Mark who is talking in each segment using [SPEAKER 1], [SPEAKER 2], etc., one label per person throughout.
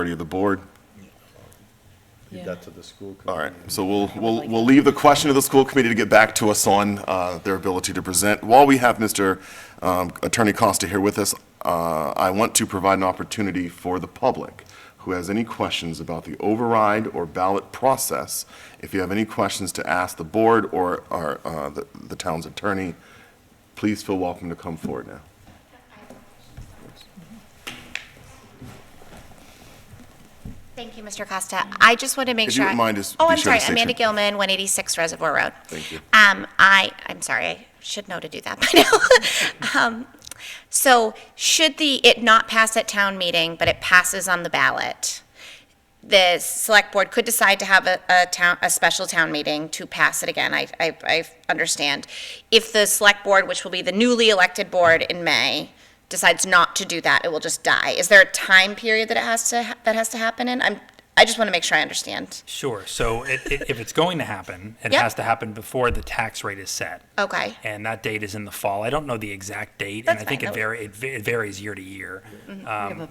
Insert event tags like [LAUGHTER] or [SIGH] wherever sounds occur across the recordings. [SPEAKER 1] majority of the board.
[SPEAKER 2] Leave that to the school committee.
[SPEAKER 1] All right, so we'll, we'll, we'll leave the question to the school committee to get back to us on uh, their ability to present. While we have Mr. um, Attorney Costa here with us, uh, I want to provide an opportunity for the public who has any questions about the override or ballot process. If you have any questions to ask the board or our, uh, the the town's attorney, please feel welcome to come forward now.
[SPEAKER 3] Thank you, Mr. Costa. I just want to make
[SPEAKER 1] If
[SPEAKER 3] sure.
[SPEAKER 1] you wouldn't
[SPEAKER 3] I-
[SPEAKER 1] mind, just
[SPEAKER 3] Oh,
[SPEAKER 1] be sure
[SPEAKER 3] I'm
[SPEAKER 1] to
[SPEAKER 3] sorry,
[SPEAKER 1] state
[SPEAKER 3] Amanda
[SPEAKER 1] your-
[SPEAKER 3] Gilman, 186 Reservoir Road.
[SPEAKER 1] Thank you.
[SPEAKER 3] Um, I, I'm sorry, I should know to do that [LAUGHS] by
[SPEAKER 1] [LAUGHS]
[SPEAKER 3] now. Um, So should the, it not pass at town meeting, but it passes on the ballot, the select board could decide to have a, a town, a special town meeting to pass it again, I, I, I understand. If the select board, which will be the newly elected board in May, decides not to do that, it will just die. Is there a time period that it has to, ha- that has to happen in? I'm, I just want to make sure I understand.
[SPEAKER 4] Sure. So it, it, if it's going to happen, it
[SPEAKER 3] Yep.
[SPEAKER 4] has to happen before the tax rate is set.
[SPEAKER 3] Okay,
[SPEAKER 4] And that date is in the fall. I don't know the exact date,
[SPEAKER 3] That's
[SPEAKER 4] and I think
[SPEAKER 3] fine. Mm-hmm.
[SPEAKER 4] it, vari- it, va- it varies year to year. Um,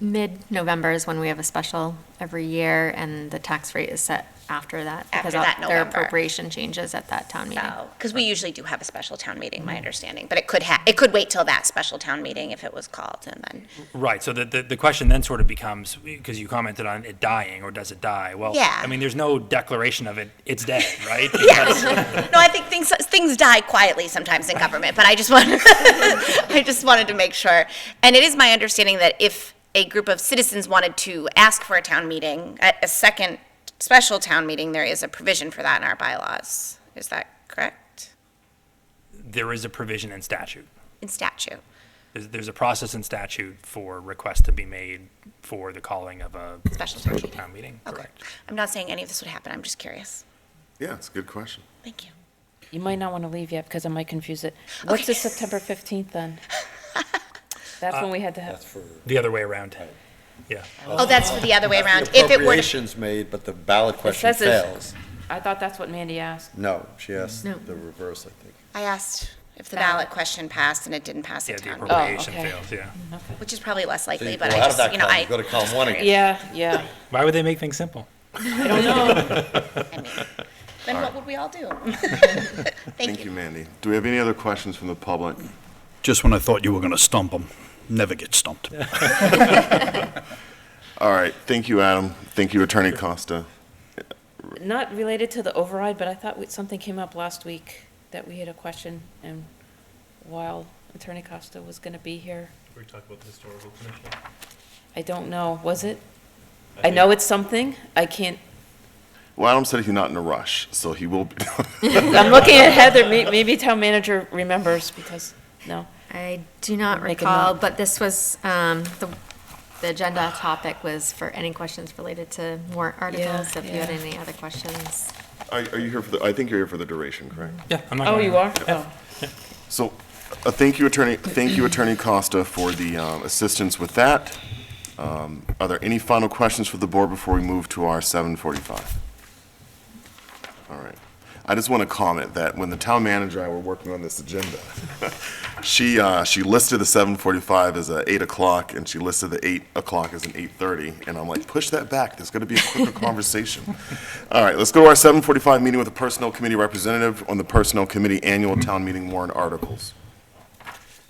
[SPEAKER 5] Mid-November is when we have a special every year, and the tax rate is set after that. because
[SPEAKER 3] After that
[SPEAKER 5] Their
[SPEAKER 3] November.
[SPEAKER 5] appropriation changes at that town meeting.
[SPEAKER 3] so, because Oh, we usually do have a special town meeting, my understanding, but it could ha, it could wait till that special town meeting if it was called and then.
[SPEAKER 4] Right. So the, the, the question then sort of becomes because you commented on it dying or does it die? Well,
[SPEAKER 3] Yeah.
[SPEAKER 4] I mean, there's no declaration of it.
[SPEAKER 3] [LAUGHS]
[SPEAKER 4] It's dead, right? Because-
[SPEAKER 3] No, I think things things die quietly sometimes in government, but I just want [LAUGHS] I just wanted to make sure. And it is my understanding that if a group of citizens wanted to ask for a town meeting, a, a second special town meeting, there is a provision for that in our bylaws. Is that correct?
[SPEAKER 4] there is a provision in statute.
[SPEAKER 3] In statute.
[SPEAKER 4] There's, there's a process in statute for requests to be made for the calling of a
[SPEAKER 3] Special town meeting.
[SPEAKER 4] town meeting.
[SPEAKER 3] Okay.
[SPEAKER 4] Correct.
[SPEAKER 3] I'm not saying any of this would happen. I'm just curious.
[SPEAKER 1] Yeah, it's a good question.
[SPEAKER 3] Thank you.
[SPEAKER 6] You might not want to leave yet because I might confuse it. What's the September 15th then? Uh, That's when we had to have,
[SPEAKER 4] The other way around. Yeah.
[SPEAKER 3] Oh, that's the other way around.
[SPEAKER 2] The
[SPEAKER 3] If it were to
[SPEAKER 2] Appropriations made, but the ballot question
[SPEAKER 6] says it's-
[SPEAKER 2] fails.
[SPEAKER 6] I thought that's what Mandy asked.
[SPEAKER 2] No, she asked
[SPEAKER 5] No.
[SPEAKER 2] the reverse, I think.
[SPEAKER 3] I asked if the
[SPEAKER 6] Ballot.
[SPEAKER 3] ballot question passed and it didn't pass
[SPEAKER 4] Yeah,
[SPEAKER 3] at
[SPEAKER 4] the
[SPEAKER 3] town,
[SPEAKER 6] appropriate-
[SPEAKER 3] meeting,
[SPEAKER 4] appropriation
[SPEAKER 6] okay.
[SPEAKER 4] fails, yeah.
[SPEAKER 3] which is probably less
[SPEAKER 2] So you
[SPEAKER 3] likely,
[SPEAKER 2] go
[SPEAKER 3] but
[SPEAKER 2] out
[SPEAKER 3] I
[SPEAKER 2] of
[SPEAKER 3] just,
[SPEAKER 2] that
[SPEAKER 3] you know,
[SPEAKER 2] column,
[SPEAKER 3] I.
[SPEAKER 2] you Go to column one again.
[SPEAKER 6] Yeah, yeah.
[SPEAKER 4] Why would they make things simple?
[SPEAKER 6] I don't know.
[SPEAKER 3] I mean, Then what would we all do? Thank
[SPEAKER 1] Thank you,
[SPEAKER 3] you.
[SPEAKER 1] Mandy. Do we have any other questions from the public?
[SPEAKER 7] Just when I thought you were going to stump them, never get stumped.
[SPEAKER 1] All right, thank you, Adam. Thank you, Attorney Costa.
[SPEAKER 6] Not related to the override, but I thought we- something came up last week that we had a question and while Attorney Costa was going to be here,
[SPEAKER 8] We talked about the historical commission.
[SPEAKER 6] I don't know, was it? I know it's something. I [LAUGHS] can't,
[SPEAKER 1] Well, Adam said he's not in a rush, so he will. be- [LAUGHS]
[SPEAKER 6] I'm looking at Heather, May- maybe town manager remembers because, no.
[SPEAKER 5] I do not
[SPEAKER 6] Make a
[SPEAKER 5] recall,
[SPEAKER 6] note.
[SPEAKER 5] but this was, um, the, the agenda topic was for any questions related to warrant articles. so If you had
[SPEAKER 6] yeah.
[SPEAKER 5] any other questions.
[SPEAKER 1] Are are you here for the, I think you're here for the duration, correct?
[SPEAKER 4] Yeah, I'm not
[SPEAKER 6] Oh,
[SPEAKER 4] gonna-
[SPEAKER 6] you are? Oh.
[SPEAKER 1] So, uh, thank you, Attorney, thank you, Attorney Costa, for the um, assistance with that. Um, Are there any final questions for the board before we move to our 7:45? All right. I just want to comment that when the town manager and I were working on this agenda, [LAUGHS] she, uh, she listed the 7:45 as a 8 o'clock, and she listed the 8 o'clock as an 8:30, and I'm like, push that back, there's going to be a quicker conversation. All right, let's go to our 7:45 meeting with the Personnel Committee representative on the Personnel Committee Annual Town Meeting warrant articles.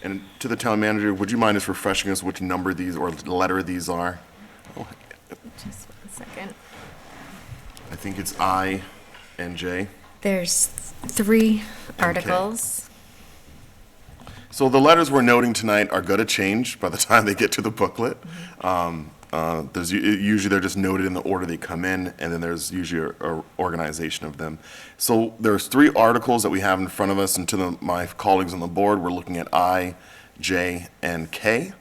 [SPEAKER 1] And to the town manager, would you mind just refreshing us which number these, or letter these are? Oh,
[SPEAKER 5] Just one second.
[SPEAKER 1] I think it's I and J.
[SPEAKER 5] There's three articles.
[SPEAKER 1] So the letters we're noting tonight are going to change by the [LAUGHS] time they get to the booklet. Um, uh, There's, u- usually they're just noted in the order they come in, and then there's usually a- a organization of them. So there's three articles that we have in front of us, and to the- my colleagues on the board, we're looking at I, J, and K.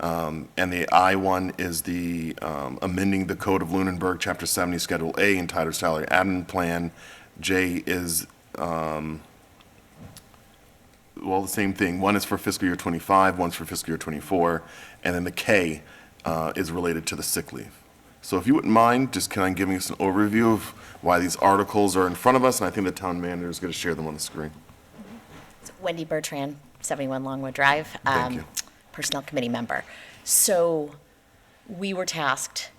[SPEAKER 1] Um, And the I one is the um, amending the Code of Lunenburg, Chapter 70, Schedule A, entitled Salary Admin Plan. J is well, the same thing. One is for fiscal year '25, one's for fiscal year '24, and then the K uh, is related to the sick leave. So if you wouldn't mind, just kind of giving us an overview of why these articles are in front of us, and I think the town manager is going to share them on the screen.
[SPEAKER 9] [LAUGHS] Wendy Bertrand, 71 Longwood Drive.
[SPEAKER 1] Thank
[SPEAKER 9] um,
[SPEAKER 1] you.
[SPEAKER 9] Personnel Committee member. So we were tasked